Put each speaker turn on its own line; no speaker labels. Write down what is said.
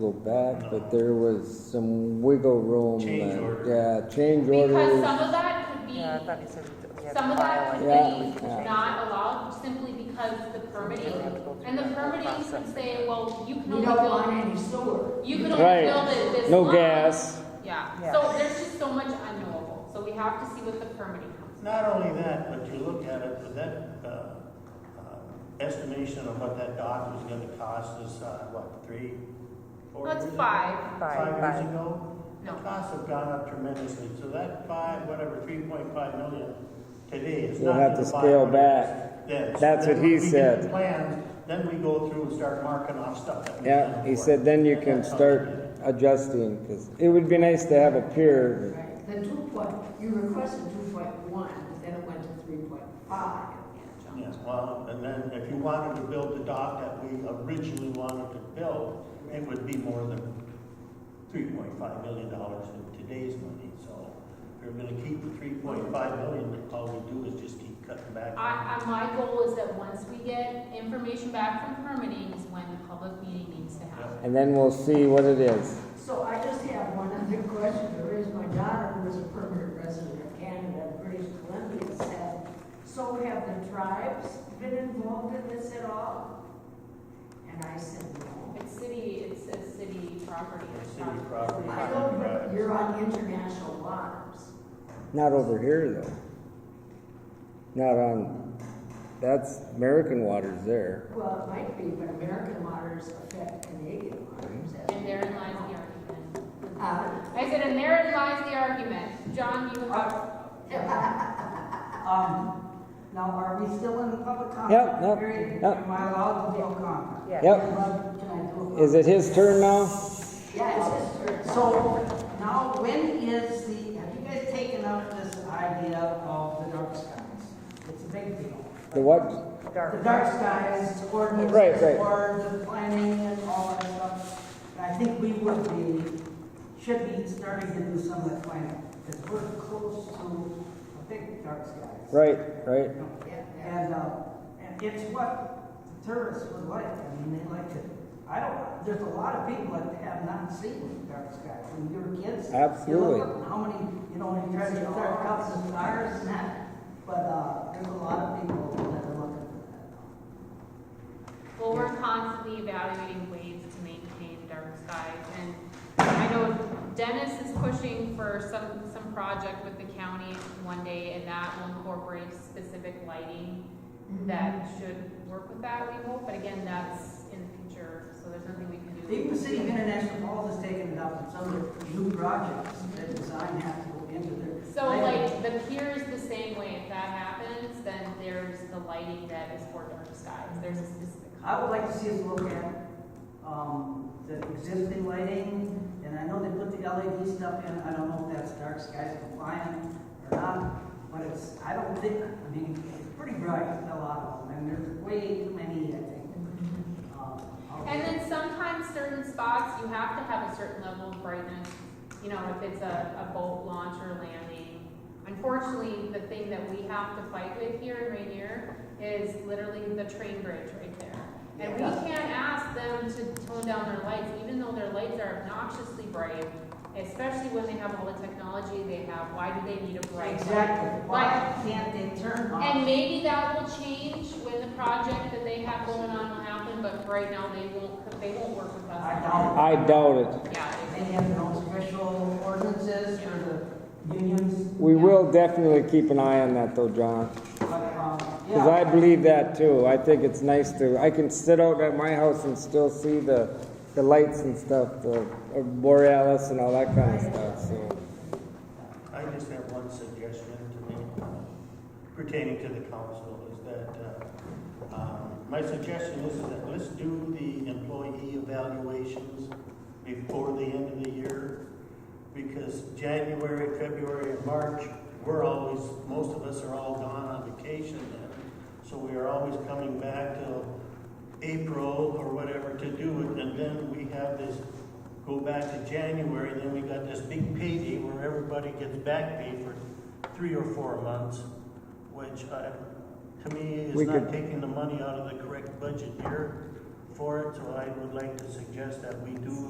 Go back, but there was some wiggle room.
Change
that-
order.
Yeah, change
Because
orders.
some of that could be,
Yeah, I thought you said we had to
some of that
file
could
Yeah.
be
Yeah.
not allowed simply because the permitting, and the permitting could say, well, you can
We
only
don't want
build,
any sewer.
you can only build it
Right,
this
no
long.
gas.
Yeah,
Yeah.
so there's just so much unknowable, so we have to see what the permitting comes.
Not only that, but you look at it, that uh, uh, estimation of what that dock was gonna cost is, uh, what, three, four years
That's
ago?
five,
Five,
years
five.
ago? The
No.
costs have gone up tremendously, so that five, whatever, three point five million today is
We'll
not.
have to
gonna buy
scale
what it
back.
is then. So
That's
then
what
when
he
we get
said.
the Plans, then we go through and start marking off stuff that we
Yeah,
can
he
afford.
said then you
And
can
that's how
start
we did it.
adjusting, because it would be nice to have a pier.
Right. The two point, you requested two point one, then it went to three point five.
Yes, well, and then if you wanted to build the dock that we originally wanted to build, it would be more than three point five million dollars in today's money, so if you're gonna keep the three point five million, then all we do is just keep cutting back.
I, I, my goal is that once we get information back from permitting is when the public meeting needs to happen.
And then we'll see what it is.
So I just have one other question. There is my daughter, who is a permanent resident of Canada, British Columbia, said, so have the tribes been involved in this at all? And I said, no.
It's city, it's a city property. it's
City
not-
property.
I don't, you're on international waters.
Not over here, though. Not on, that's American waters there.
Well, it might be, but American waters affect Canadian waters. as
And therein lies the argument.
we- Uh,
I said, and therein lies the argument. John, you have.
Um, now, are we still in the public comment?
Yep, yep,
period?
yep.
Am I allowed to do a comment?
Yeah.
Yep,
Can I do it?
is it his turn now?
Yeah, it's just her.
So, now, when is the, have you guys taken up this idea of the dark skies? It's a big deal.
The what?
The
dark.
dark skies ordinance
Right, right.
for the planning and all that stuff. And I think we would be, should be starting to do some of that planning, because we're close to a big dark skies.
Right, right.
And, uh, and it's what the tourists would like, I mean, they like it. I don't, there's a lot of people that have not seen dark sky when you were kids. you look
Absolutely.
up How many, you know, you try to get dark cups and stars and that, but, uh, there's a lot of people that are looking for that.
Well, we're constantly evaluating ways to maintain dark skies. And I know Dennis is pushing for some, some project with the county one day, and that will incorporate specific lighting
Mm-hmm.
that should work with that, we hope. But again, that's in the future, so there's nothing we can do.
Even the city of International Falls has taken it up, and some of the new projects that design have to go into their.
So like, the pier is the same way, if that happens, then there's the lighting that is for dark skies, there's a specific
I
color.
would like to see us look at, um, the existing lighting, and I know they put the LED stuff in, I don't know if that's dark skies compliant or not, but it's, I don't think, I mean, it's pretty bright, a lot of them, and there's way too many, I think. um, out
And
there.
then sometimes certain spots, you have to have a certain level of brightness, you know, if it's a, a boat launch or landing. Unfortunately, the thing that we have to fight with here in Rainier is literally the train bridge right there. And we
Yeah.
can't ask them to tone down their lights, even though their lights are obnoxiously bright, especially when they have all the technology they have, why do they need a bright light?
Exactly,
Like-
why can't they turn off?
And maybe that will change when the project that they have going on will happen, but right now they won't, they won't work with us.
I doubt
I doubt it.
Yeah,
they have their own special ordinances for the unions. um,
We will definitely keep an eye on that though, John. Because
Because
I believe that too. I think it's nice to, I can sit out at my house and still see the, the lights and stuff, the uh, borealis and all that kind of stuff, so.
I just have one suggestion to make uh, pertaining to the council is that, uh, um, my suggestion is that let's do the employee evaluations before the end of the year. Because January, February, and March, we're always, most of us are all gone on vacation then. So we are always coming back till April or whatever to do it. And then we have this go back to January, then we got this big payday where everybody gets back pay for three or four months, which I, to me
We
is
could-
not taking the money out of the correct budget year for it, so I would like to suggest that we do